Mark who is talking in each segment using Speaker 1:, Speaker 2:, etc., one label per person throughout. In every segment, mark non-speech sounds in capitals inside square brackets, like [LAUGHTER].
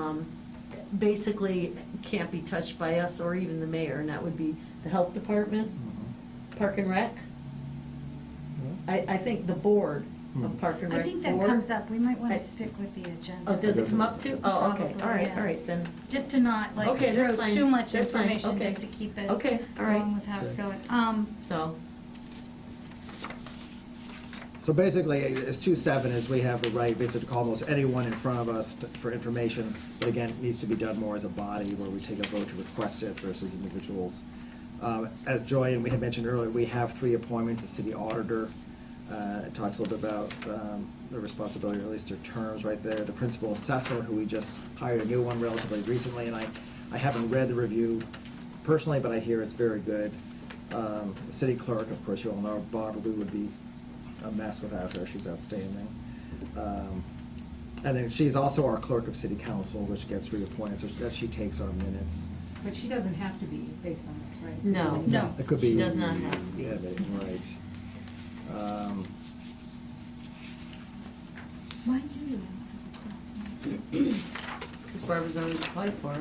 Speaker 1: um, basically can't be touched by us or even the mayor, and that would be the health
Speaker 2: Ừ.
Speaker 1: department,
Speaker 2: Mm-hmm.
Speaker 1: park and rec. I, I think the board
Speaker 2: Mm-hmm.
Speaker 1: of park and rec.
Speaker 3: I think that
Speaker 1: board-
Speaker 3: comes up, we might want
Speaker 1: I-
Speaker 3: to stick with the agenda.
Speaker 1: Oh, does it come up too? Oh, okay,
Speaker 3: Probably,
Speaker 1: all right,
Speaker 3: yeah.
Speaker 1: all right, then.
Speaker 3: Just to not, like,
Speaker 1: Okay, that's
Speaker 3: throw
Speaker 1: fine.
Speaker 3: too much
Speaker 1: That's fine.
Speaker 3: information,
Speaker 1: Okay.
Speaker 3: just to keep it
Speaker 1: Okay, all right.
Speaker 3: along with how it's going. Um,
Speaker 1: So,
Speaker 2: So basically, it's two seven is we have the right basically to call almost anyone in front of us to- for information. But again, it needs to be done more as a body where we take a vote to request it versus individuals. Um, As Joy and we had mentioned earlier, we have three appointments, the city auditor. uh, It talks a little bit about um, their responsibility, or at least their terms right there. The principal assessor, who we just hired a new one relatively recently, and I, I haven't read the review personally, but I hear it's very good. Um, the City clerk, of course, you all know, Barbara, we would be a mess without her, she's outstanding. Um, And then she's also our clerk of city council, which gets reappointed, so that she takes our minutes.
Speaker 4: But she doesn't have to be based on this, right?
Speaker 1: No.
Speaker 3: No.
Speaker 2: It could be.
Speaker 1: She does not have to be.
Speaker 2: Yeah, but- Right. Um,
Speaker 3: why do you have to
Speaker 1: because Barbara's already applied for it.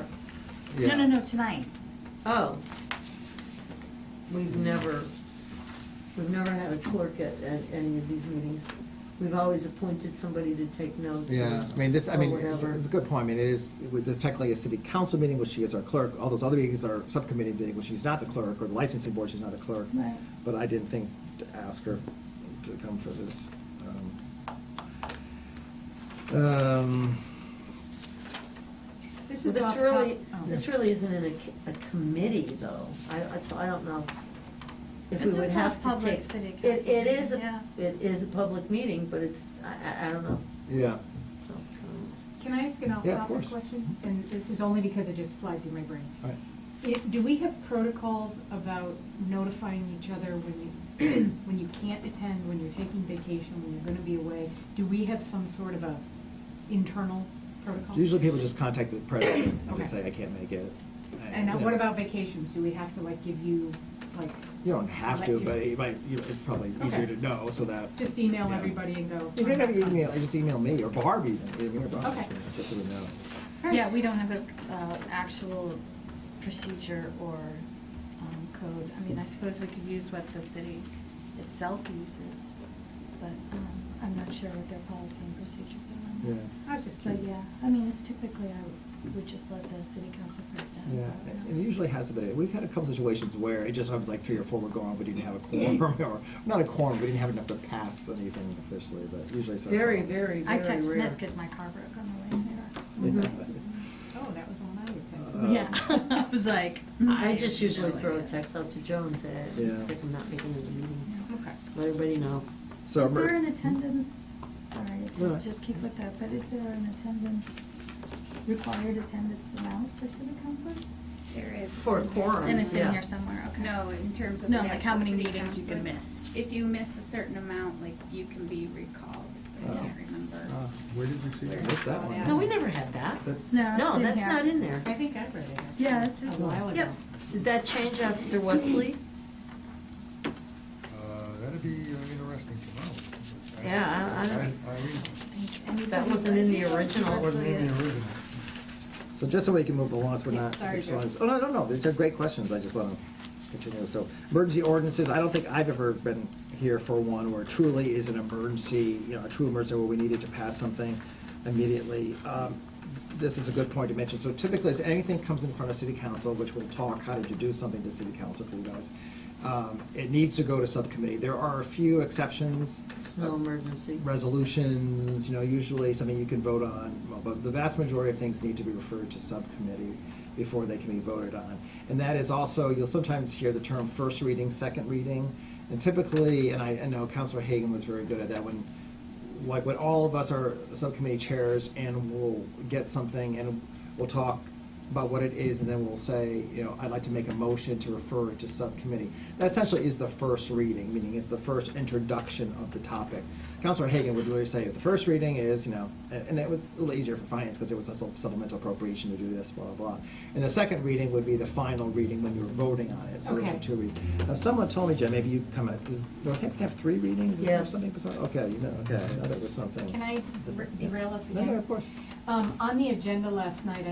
Speaker 3: do that?
Speaker 2: yeah.
Speaker 3: No, no, no, tonight.
Speaker 1: Oh. We've never, we've never had a clerk at, at any of these meetings. We've always appointed somebody to take notes. or-
Speaker 2: Yeah, I mean, this, I mean,
Speaker 1: Or
Speaker 2: it's
Speaker 1: whatever.
Speaker 2: it's a good point, I mean, it is, with this technically a city council meeting, which she is our clerk, all those other meetings are subcommittee meeting, which she's not the clerk, or the licensing board, she's not a clerk.
Speaker 3: Right.
Speaker 2: But I didn't think to ask her to come for this. um, um,
Speaker 4: This
Speaker 1: Well,
Speaker 4: is
Speaker 1: This
Speaker 4: off top-
Speaker 1: really,
Speaker 4: oh.
Speaker 1: this really isn't in a, c- a committee though. I, I- so I don't know if we
Speaker 3: It's a
Speaker 1: would have to take.
Speaker 3: public city
Speaker 1: It,
Speaker 3: council
Speaker 1: it is,
Speaker 3: meeting,
Speaker 1: a-
Speaker 3: yeah.
Speaker 1: it is a public meeting, but it's, I, I, I don't know.
Speaker 2: Yeah,
Speaker 1: So, um,
Speaker 4: Can I ask an
Speaker 2: Yeah, of
Speaker 4: off-topic
Speaker 2: course.
Speaker 4: question? And this is only because it just flied through my brain.
Speaker 2: all right.
Speaker 4: It- Do we have protocols about notifying each other when you, [CLEARS THROAT] when you can't attend, when you're taking vacation, when you're gonna be away? Do we have some sort of a internal protocol?
Speaker 2: Usually people just contact the president and
Speaker 4: Okay.
Speaker 2: just say, I can't make it.
Speaker 4: And uh,
Speaker 2: you
Speaker 4: what
Speaker 2: know.
Speaker 4: about vacations? Do we have to like give you, like,
Speaker 2: You don't have
Speaker 4: Let
Speaker 2: to,
Speaker 4: you-
Speaker 2: but it might, you know, it's probably easier
Speaker 4: Okay.
Speaker 2: to know, so that.
Speaker 4: just email
Speaker 2: Yeah.
Speaker 4: everybody and go?
Speaker 2: You don't have to email, just email me, or Barb even, even, or Barb,
Speaker 4: Okay.
Speaker 2: just so we know.
Speaker 4: All right.
Speaker 3: Yeah, we don't have a, uh, actual procedure or, um, code. I mean, I suppose we could use what the city itself uses, but, um, I'm not sure what their policy and procedures are on that.
Speaker 2: Yeah.
Speaker 4: I was just
Speaker 3: But
Speaker 4: curious.
Speaker 3: yeah, I mean, it's typically, I would just let the city council president.
Speaker 2: Yeah, and it usually has been, we've had a couple situations where it just happens like three or four were gone, we didn't have a quorum, [LAUGHS] or, not a quorum, we didn't have enough to pass anything officially, but usually so.
Speaker 1: Very, very, very
Speaker 3: I
Speaker 1: rare.
Speaker 3: text Smith because my car broke on the way Mm-hmm.
Speaker 2: Yeah.
Speaker 3: here.
Speaker 4: Oh, that was all I would think.
Speaker 2: Uh,
Speaker 3: Yeah, [LAUGHS] I was like. mm,
Speaker 1: I just usually
Speaker 3: Hmm. no
Speaker 1: throw a
Speaker 3: idea.
Speaker 1: text out to Joe and say,
Speaker 2: Yeah.
Speaker 1: I'm sick, I'm not making it a meeting.
Speaker 4: Okay.
Speaker 1: Let everybody know.
Speaker 2: So,
Speaker 3: Is there an
Speaker 2: emer-
Speaker 3: attendance, sorry, if you
Speaker 2: No.
Speaker 3: just keep with that, but is there an attendance, required attendance amount for city council?
Speaker 5: There is.
Speaker 1: For quorums,
Speaker 3: And it's in
Speaker 1: yeah.
Speaker 3: here somewhere, okay.
Speaker 5: No, in terms of.
Speaker 3: No,
Speaker 5: an
Speaker 3: like
Speaker 5: actual
Speaker 3: how many
Speaker 5: city
Speaker 3: meetings you can
Speaker 5: council.
Speaker 3: miss.
Speaker 5: If you miss a certain amount, like you can be recalled. I
Speaker 2: Oh.
Speaker 5: can't remember.
Speaker 2: Oh,
Speaker 6: Ah, Where did you see
Speaker 5: where
Speaker 2: I
Speaker 5: it's
Speaker 2: missed that
Speaker 5: all
Speaker 2: one.
Speaker 5: at.
Speaker 1: No, we never had that.
Speaker 2: that-
Speaker 3: No, it's in
Speaker 1: that's
Speaker 3: here.
Speaker 1: not in there.
Speaker 4: I think I read it. actually,
Speaker 3: Yeah, it's
Speaker 4: A
Speaker 3: in-
Speaker 4: while ago.
Speaker 3: yep.
Speaker 1: Did that change after Wesley?
Speaker 6: Uh, That'd be uh, interesting to know. I-
Speaker 1: Yeah, I- I don't-
Speaker 6: I mean,
Speaker 1: That wasn't in the original.
Speaker 6: it wasn't in the original.
Speaker 2: so just so we can move along, so we're
Speaker 4: Yeah,
Speaker 2: not.
Speaker 4: sorry, Joe.
Speaker 2: Oh, no, no, no, these are great questions, I just wanna continue, so, emergency ordinances, I don't think I've ever been here for one where truly is an emergency, you know, a true emergency where we needed to pass something immediately. Um, this is a good point to mention. So typically, as anything comes in front of city council, which we'll talk how to do something to city council for you guys, um, it needs to go to subcommittee. There are a few exceptions.
Speaker 1: Snow emergency.
Speaker 2: Resolutions, you know, usually something you can vote on, well, but the vast majority of things need to be referred to subcommittee before they can be voted on. And that is also, you'll sometimes hear the term first reading, second reading. And typically, and I, I know Counselor Hagan was very good at that, when like when all of us are subcommittee chairs and we'll get something and we'll talk about what it is, and then we'll say, you know, I'd like to make a motion to refer it to subcommittee. That essentially is the first reading, meaning it's the first introduction of the topic. Counselor Hagan would really say, the first reading is, you know, a- and it was a little easier for finance because it was a supplemental appropriation to do this, blah, blah, blah. And the second reading would be the final reading when you were voting on it, so those are
Speaker 4: Okay.
Speaker 2: two readings. Now, someone told me, Jen, maybe you come, in- does Northampton have three readings? Is there
Speaker 1: Yes.
Speaker 2: Something, bizarre? okay, you know, okay, I thought it was something.
Speaker 4: Can I derail us
Speaker 2: No,
Speaker 4: again?
Speaker 2: no, of course.
Speaker 4: Um, On the agenda last night,